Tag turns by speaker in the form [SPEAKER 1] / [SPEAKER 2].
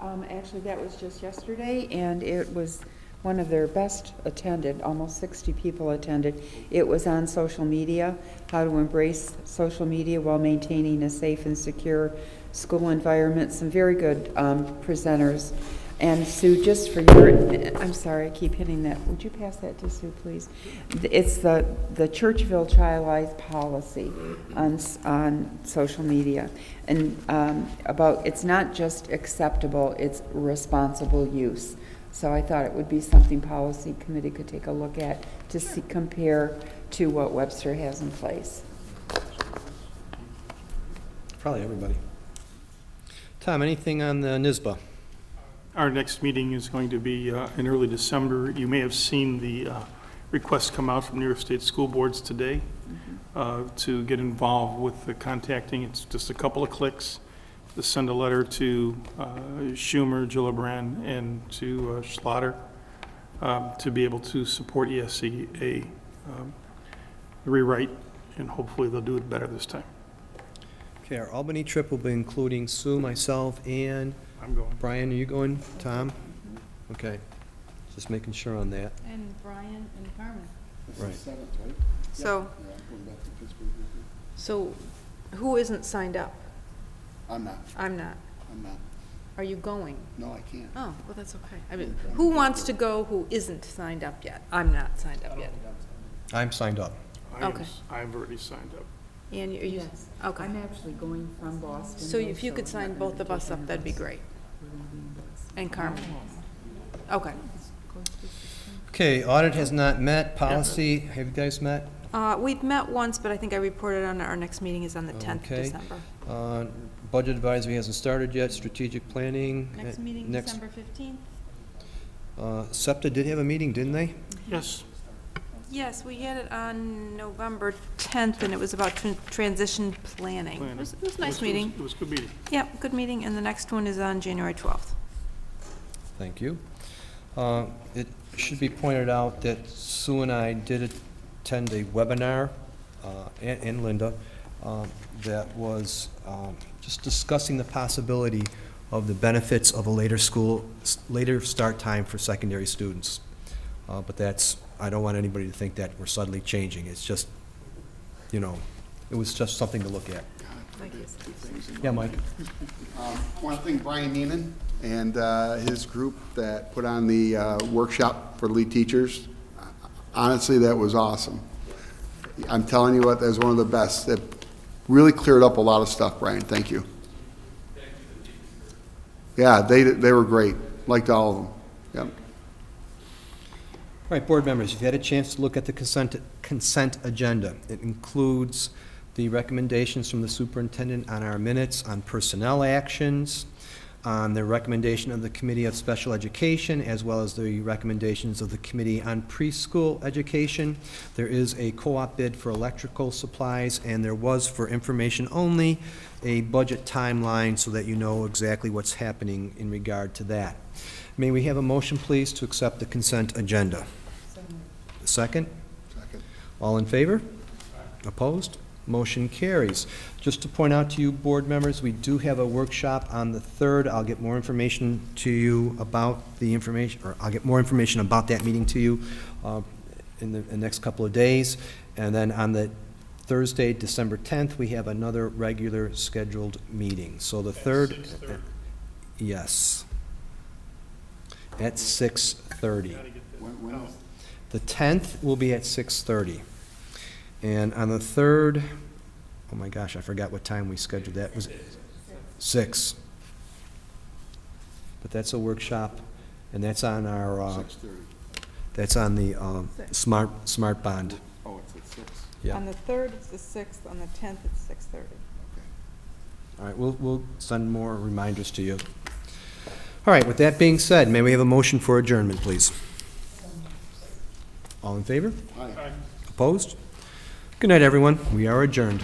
[SPEAKER 1] Um, actually, that was just yesterday, and it was one of their best attended, almost sixty people attended. It was on social media, how to embrace social media while maintaining a safe and secure school environment. Some very good, um, presenters. And Sue, just for your, I'm sorry, I keep hitting that. Would you pass that to Sue, please? It's the, the Churchville Child Life Policy on, s- on social media. And um, about, it's not just acceptable, it's responsible use. So I thought it would be something policy committee could take a look at to see, compare to what Webster has in place.
[SPEAKER 2] Probably everybody. Tom, anything on the NISBA?
[SPEAKER 3] Our next meeting is going to be uh, in early December. You may have seen the uh, requests come out from New York State School Boards today
[SPEAKER 4] Mm-hmm.
[SPEAKER 3] uh, to get involved with the contacting. It's just a couple of clicks to send a letter to uh, Schumer, Gillibrand, and to uh, Schlatter um, to be able to support E ESCA um, rewrite, and hopefully they'll do it better this time.
[SPEAKER 2] Okay, our Albany trip will be including Sue, myself, and
[SPEAKER 3] I'm going.
[SPEAKER 2] Brian, are you going? Tom? Okay, just making sure on that.
[SPEAKER 5] And Brian and Carmen.
[SPEAKER 2] Right.
[SPEAKER 4] So, so who isn't signed up?
[SPEAKER 6] I'm not,
[SPEAKER 4] I'm not.
[SPEAKER 6] I'm not.
[SPEAKER 4] Are you going?
[SPEAKER 6] No, I can't.
[SPEAKER 4] Oh, well, that's okay. I mean, who wants to go who isn't signed up yet? I'm not signed up yet.
[SPEAKER 2] I'm signed up.
[SPEAKER 3] I am-
[SPEAKER 4] Okay.
[SPEAKER 3] I've already signed up.
[SPEAKER 4] And you, are you,
[SPEAKER 7] Yes.
[SPEAKER 4] okay.
[SPEAKER 7] I'm actually going from Boston.
[SPEAKER 4] So
[SPEAKER 7] though,
[SPEAKER 4] if you could
[SPEAKER 7] I'm not
[SPEAKER 4] sign
[SPEAKER 7] gonna
[SPEAKER 4] both of
[SPEAKER 7] take
[SPEAKER 4] us
[SPEAKER 7] any
[SPEAKER 4] up, that'd be
[SPEAKER 7] us.
[SPEAKER 4] great.
[SPEAKER 7] We're gonna be in Boston.
[SPEAKER 4] And Carmen, okay.
[SPEAKER 2] Okay, audit has not met, policy, have you guys met?
[SPEAKER 4] Uh, we've met once, but I think I reported on our next meeting is on the 10th of
[SPEAKER 2] Okay.
[SPEAKER 4] December.
[SPEAKER 2] Uh, Budget advisory hasn't started yet, strategic planning.
[SPEAKER 5] Next
[SPEAKER 2] eh,
[SPEAKER 5] meeting,
[SPEAKER 2] next-
[SPEAKER 5] December 15th.
[SPEAKER 2] Uh, SEPTA did have a meeting, didn't they?
[SPEAKER 3] Yes,
[SPEAKER 4] Yes, we had it on November 10th, and it was about tran- transition planning.
[SPEAKER 3] Planning.
[SPEAKER 4] It was, it was a
[SPEAKER 3] it
[SPEAKER 4] nice
[SPEAKER 3] was-
[SPEAKER 4] meeting.
[SPEAKER 3] It was a good meeting.
[SPEAKER 4] Yep, good meeting, and the next one is on January 12th.
[SPEAKER 2] Thank you. Uh, It should be pointed out that Sue and I did attend a webinar, uh, and and Linda, um, that was um, just discussing the possibility of the benefits of a later school, s- later start time for secondary students. Uh, But that's, I don't want anybody to think that we're suddenly changing. It's just, you know, it was just something to look at. Yeah, Mike?
[SPEAKER 6] Want to thank Brian Neenan and uh, his group that put on the uh, workshop for lead teachers. Honestly, that was awesome. I'm telling you what, that was one of the best. That really cleared up a lot of stuff, Brian. Thank you. Yeah, they, they were great. Liked all of them. Yep.
[SPEAKER 2] All right, board members, you've had a chance to look at the consent, consent agenda. It includes the recommendations from the superintendent on our minutes on personnel actions, on the recommendation of the Committee of Special Education, as well as the recommendations of the Committee on Preschool Education. There is a co-op bid for electrical supplies, and there was, for information only, a budget timeline so that you know exactly what's happening in regard to that. May we have a motion, please, to accept the consent agenda? Second?
[SPEAKER 6] Second.
[SPEAKER 2] All in favor? Opposed? Motion carries. Just to point out to you, board members, we do have a workshop on the 3rd. I'll get more information to you about the information, or I'll get more information about that meeting to you uh, in the in the next couple of days. And then on the Thursday, December 10th, we have another regular scheduled meeting. So the 3rd. Yes. At 6:30.
[SPEAKER 6] When- when is-
[SPEAKER 2] The 10th will be at 6:30. And on the 3rd, oh my gosh, I forgot what time we scheduled that. Was it 6? But that's a workshop, and that's on our, uh,
[SPEAKER 6] 6:30.
[SPEAKER 2] that's on the um,
[SPEAKER 7] Six.
[SPEAKER 2] smart, smart bond.
[SPEAKER 6] Oh, it's at six.
[SPEAKER 2] Yeah.
[SPEAKER 7] On the third, it's the sixth, on the tenth, it's six thirty.
[SPEAKER 2] All right, we'll, we'll send more reminders to you. All right, with that being said, may we have a motion for adjournment, please? All in favor?
[SPEAKER 6] Hi.
[SPEAKER 2] Opposed? Good night, everyone. We are adjourned.